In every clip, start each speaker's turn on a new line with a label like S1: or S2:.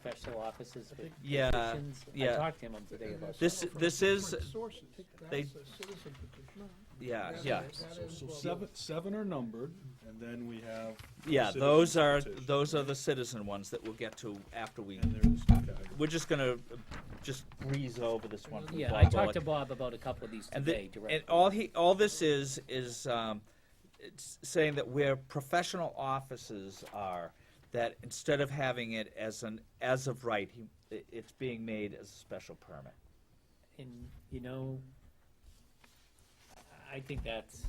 S1: special offices with
S2: Yeah,
S1: petitions. I
S2: yeah.
S1: talked to him on today about.
S2: This-
S1: that.
S2: this is-
S3: Sources.
S2: they-
S3: That's a citizen petition.
S2: Yeah,
S3: That-
S2: yeah.
S3: that
S4: So,
S3: is
S4: so
S3: what-
S4: seven, seven are numbered, and then we have.
S2: Yeah,
S4: citizen
S2: those are,
S4: petition.
S2: those are the citizen ones that we'll get to after we,
S4: And there's, okay,
S2: we're just gonna uh, just breeze over this one. from
S1: Yeah, I
S2: Bob
S1: talked to
S2: Bullock.
S1: Bob about a couple of these
S2: And the-
S1: today directly.
S2: And all he, all this is, is, um, it's saying that where professional offices are, that instead of having it as an, as of right, he, it- it's being made as a special permit.
S1: And, you know, I think that's,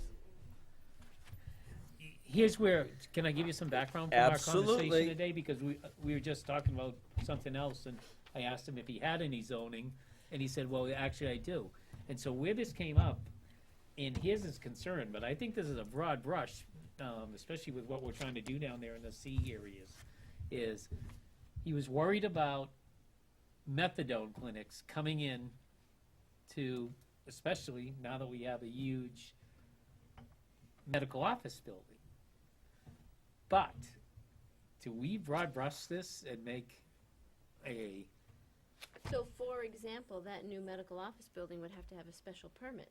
S1: here's where, can I give you some background from our
S2: Absolutely.
S1: conversation today? Because we, we were just talking about something else, and I asked him if he had any zoning, and he said, well, actually, I do. And so where this came up, and here's his concern, but I think this is a broad brush, um, especially with what we're trying to do down there in the sea areas, is he was worried about methadone clinics coming in to, especially now that we have a huge medical office building. But do we broad brush this and make a,
S5: So for example, that new medical office building would have to have a special permit.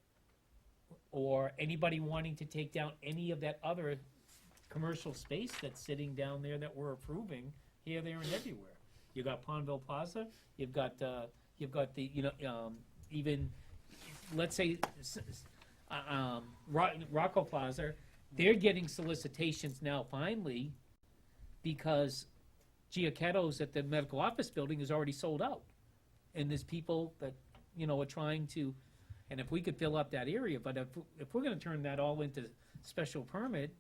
S1: or anybody wanting to take down any of that other commercial space that's sitting down there that we're approving here, there, and everywhere? You've got Pondville Plaza, you've got, uh, you've got the, you know, um, even, let's say, s- s- uh, um, Ro- Rocco Plaza, they're getting solicitations now finally because Giacchetto's at the medical office building is already sold out. And there's people that, you know, are trying to, and if we could fill up that area, but if, if we're gonna turn that all into special permit,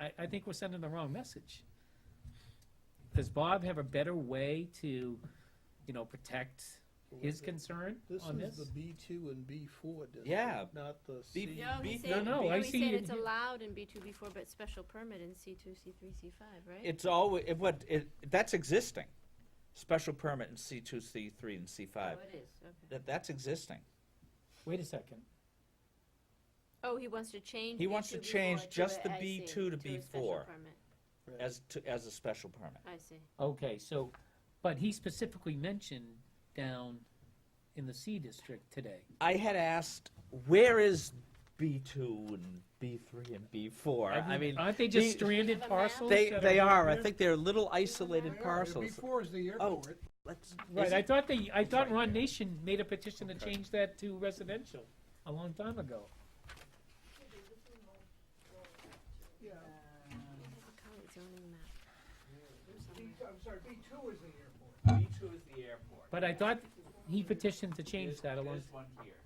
S1: I, I think we're sending the wrong message. Does Bob have a better way to, you know, protect his concern on
S3: This
S1: this?
S3: is the B two and B four
S2: Yeah.
S3: district, not the
S2: B-
S3: C.
S5: No,
S2: B-
S5: he said,
S1: no, no, I
S5: no, he
S1: see
S5: said
S1: it
S5: it's
S1: here.
S5: allowed in B two, B four, but special permit in C two, C three, C five, right?
S2: It's always, it, what, it, that's existing. Special permit in C two, C three, and C
S5: Oh,
S2: five.
S5: it is, okay.
S2: That, that's existing.
S1: Wait a second.
S5: Oh, he wants to change.
S2: He wants to
S5: B2, B4
S2: change just
S5: a-
S2: the
S5: I see,
S2: B2 to
S5: a special
S2: B4.
S5: permit.
S2: as to, as a special permit.
S5: I see.
S1: Okay, so, but he specifically mentioned down in the C district today.
S2: I had asked, where is B two and B three and B four? I mean,
S1: Aren't they just
S2: the-
S1: stranded
S5: Have a map?
S1: parcels?
S2: they,
S1: that
S2: they are, I
S1: there?
S2: think they're little
S3: They
S2: isolated
S3: are.
S2: parcels.
S3: B four is the
S2: Oh,
S3: airport.
S2: let's,
S1: Right,
S2: is
S1: I
S2: it-
S1: thought they, I thought
S4: right
S1: Ron
S4: there.
S1: Nation made a petition to
S4: Okay.
S1: change that to residential a long time ago.
S3: Yeah.
S5: Look how it's zoning map.
S3: B- I'm sorry, B two is the airport.
S2: B two is the airport.
S1: But I thought he petitioned to change that a long,
S6: There's one here.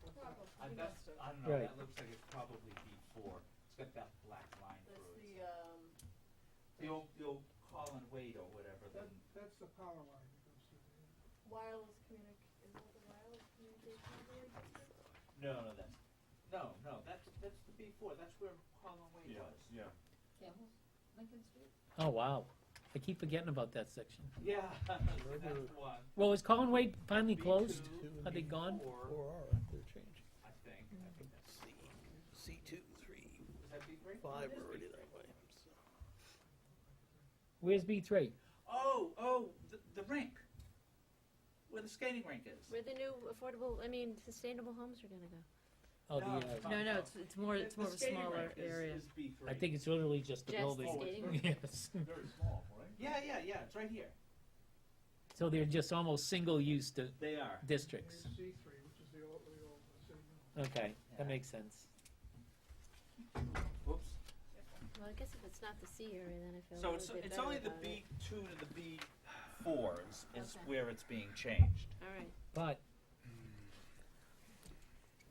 S6: I, that's, I don't know,
S1: Right.
S6: that looks like it's probably B four, it's got that black line through it. The old, the old call and wait or whatever, then,
S3: That, that's the power line. that goes through there.
S7: wireless communic, is that the wireless communication board?
S6: no, no, that's, no, no, that's, that's the B four, that's where call and wait
S4: yeah,
S6: was.
S4: yeah.
S7: Lincoln Street?
S1: oh, wow. I keep forgetting about that section.
S6: Yeah, so that's the one.
S1: Well, is Colin Wade finally
S6: B2,
S1: closed?
S3: Two
S1: Are they
S3: and
S1: gone?
S6: B4,
S3: Four are, they're changing.
S6: I think, I think that's,
S3: C, C two, three,
S6: is that B three?
S3: five are already that way.
S1: Where's B three?
S6: Oh, oh, the, the rink, where the skating rink is.
S5: Where the new affordable, I mean, sustainable homes are gonna go.
S1: Oh, the,
S6: No,
S1: uh,
S6: it's not. No, no, it's-
S7: more,
S6: The- the skating rink is- Is B three.
S1: I think it's literally just the
S5: Just
S1: building.
S5: skating.
S1: Yes.
S4: Very small, right?
S6: Yeah, yeah, yeah, it's right here,
S1: So they're just almost single-use di-
S6: they are.
S1: districts.
S3: C three, which is the old, the old, the same.
S1: Okay,
S6: Yeah.
S1: that makes sense.
S6: Whoops.
S5: Well, I guess if it's not the C area, then I feel a
S2: So it's,
S5: little bit
S2: it's
S5: better
S2: only the
S5: about it.
S2: B two to the B four is, is
S5: Okay.
S2: where it's being changed.
S5: All right.
S1: But.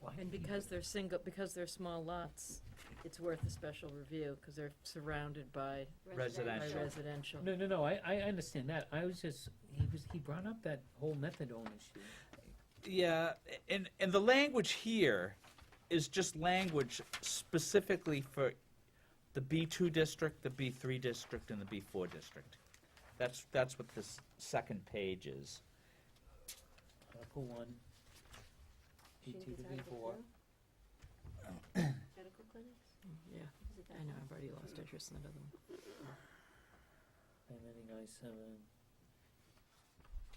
S1: Why
S8: And
S1: did he-
S8: because they're single, because they're small lots, it's worth a special review, because they're surrounded by by
S2: Residential.
S8: residential.
S1: No, no, no, I, I understand that, I was just, he was, he brought up that whole methadone issue.
S2: Yeah, and, and the language here is just language specifically for the B2 district, the B3 district, and the B4 district. That's, that's what this second page is.
S1: Article one, B
S5: Do you
S1: two
S5: think
S1: to
S5: it's
S1: B four.
S5: Article two? Medical clinics?
S8: Yeah,
S5: Is it that
S8: I know,
S5: one?
S8: I've already lost interest in that other one.
S1: And then he goes seven.